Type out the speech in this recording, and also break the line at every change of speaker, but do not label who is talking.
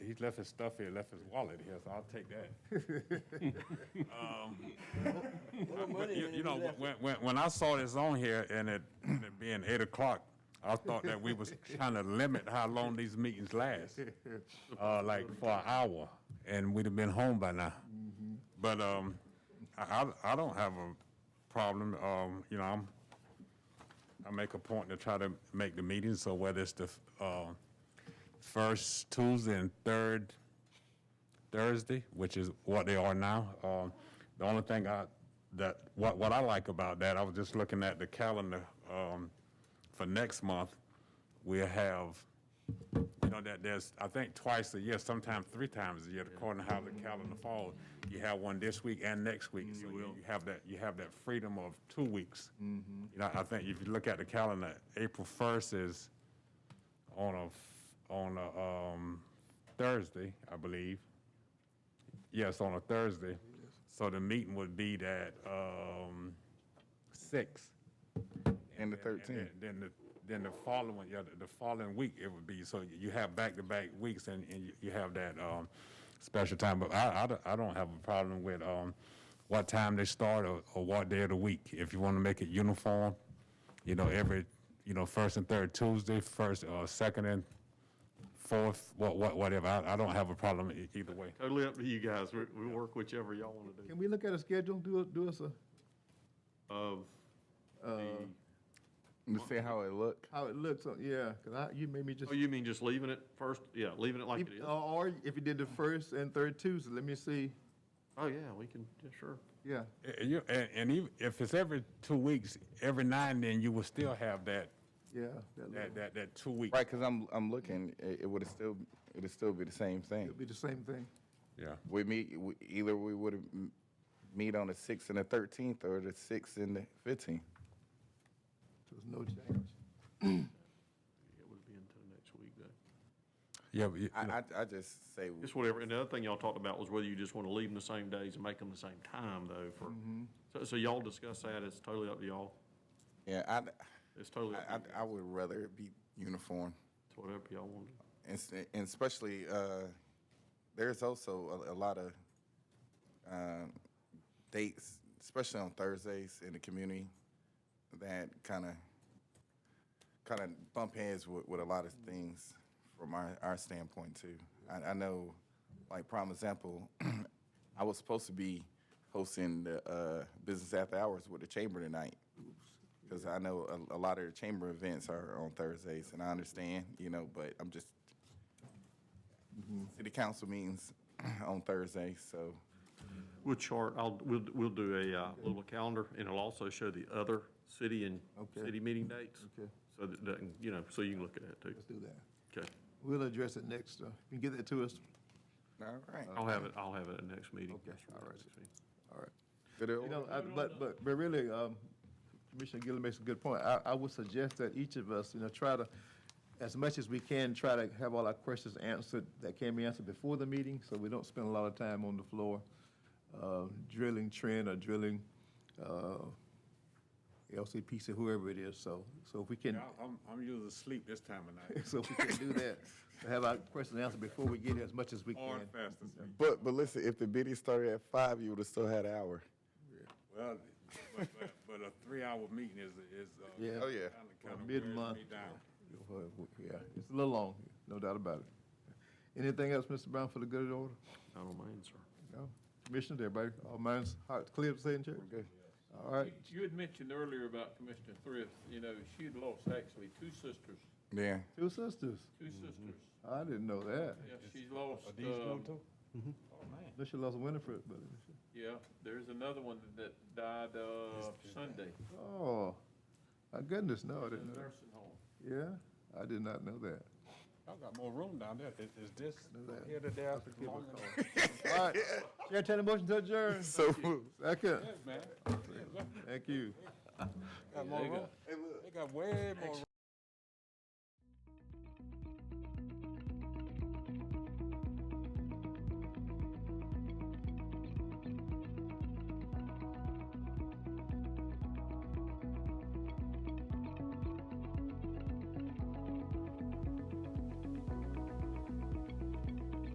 he left his stuff here, left his wallet here, so I'll take that. Um, But you, you know, when, when, when I saw this on here and it, it being eight o'clock, I thought that we was trying to limit how long these meetings last, uh, like for an hour, and we'd have been home by now. But, um, I, I, I don't have a problem, um, you know, I'm, I make a point to try to make the meetings, so whether it's the, uh, first Tuesday and third Thursday, which is what they are now. Um, the only thing I that what what I like about that, I was just looking at the calendar um, for next month. We have, you know, that there's I think twice a year, sometimes three times a year, according to how the calendar falls. You have one this week and next week, so you, you have that you have that freedom of two weeks. You know, I think if you look at the calendar, April first is on a f- on a um, Thursday, I believe. Yes, on a Thursday. So the meeting would be that um, six.
And the
And
13th.
then the then the following yeah the, the following week it would be so you have back to back weeks and, and you, you have that um, special time. But I, I don't- I don't have a problem with um, what time they start or, or what day of the week. If you want to make it uniform, you know every you know first and third Tuesday, first uh, second and fourth, what what whatever. I, I don't have a problem e- either way.
Totally up to you guys. We, we work whichever y'all want to do.
Can we look at a schedule, do, do us a,
Of the,
To see how it look.
how it looks, uh, yeah, because I, you made me just.
oh, you mean just leaving it first? Yeah, leaving it like it is.
Or or if you did the first and third Tuesday, let me see,
Oh, yeah, we can, yeah, sure.
yeah.
And, Eh, you, and, and even if it's every two weeks, every now and then you will still have that
Yeah. that little-
that that, that two week.
Right, because I'm, I'm looking, it, it would still, it would still be the same thing.
It'll be the same thing.
Yeah.
We meet, we- either we would meet on the 6th and the 13th, or the 6th and the 15th.
So There's no change.
It would be until next week, though.
Yeah. But you,
I, I, I just say,
Just whatever. And the other thing y'all talked about was whether you just want to leave them the same days and make them the same time, though, for, so, so y'all discuss that. It's totally up to y'all.
yeah, I,
It's totally up to
I,
you.
I- I would rather it be uniform.
It's whatever y'all want to do.
And s- and especially, uh, there's also a, a lot of, uh, dates, especially on Thursdays in the community, that kind of, kind of bump heads with, with a lot of things from our, our standpoint too. I, I know, like prime example, I was supposed to be hosting the, uh, business after hours with the chamber tonight. Because I know a, a lot of the chamber events are on Thursdays, and I understand, you know, but I'm just, city council meetings on Thursday, so
We'll chart, I'll, we'll, we'll do a, uh, little calendar, and it'll also show the other city and
Okay.
city meeting dates.
Okay.
So that, that, you know, so you can look at that, too.
Let's do that.
Okay.
We'll address it next, uh, you get that to us,
All right.
I'll have it, I'll have it at next meeting.
Okay,
Yes, sir,
all right.
next meeting.
all right.
Did it-
You know, I- but, but, but really, um, Commissioner Gillen makes a good point. I, I would suggest that each of us, you know, try to, as much as we can, try to have all our questions answered that can be answered before the meeting, so we don't spend a lot of time on the floor uh, drilling trend or drilling uh, LCPC, whoever it is, so, so if we can,
I'm, I'm usually asleep this time of night.
so if we can do that, to have our questions answered before we get here as much as we
Or
can.
fast asleep.
But but listen, if the bidding started at five, you would have still had an hour.
Well, but, but, but a three-hour meeting is, is, uh.
Yeah.
Oh, yeah.
kinda-
Or
kinda wears
mid-month.
me down.
Well, w- Yeah, it's a little long, no doubt about it. Anything else, Mr. Brown, for the good of the order?
I don't mind, sir.
No? Commissioners, everybody, all minds, hearts clear, saying check? Good. All right,
You- You had mentioned earlier about Commissioner Thrift, you know, she had lost actually two sisters,
Yeah.
two sisters.
two sisters.
Mm-hmm. I didn't know that.
Yeah, she lost, um,
I she lost Winifred, but,
yeah, there's another one that died, uh, Sunday
oh, my goodness, no, I
in a
didn't know.
nursing home.
Yeah, I did not know that.
Y'all got more room down there. Is, is this
that.
here to there? long enough?
All right, Chair, take a motion to adjourn.
So moved.
Second,
Man,
thank you.
got more room. They got way more room.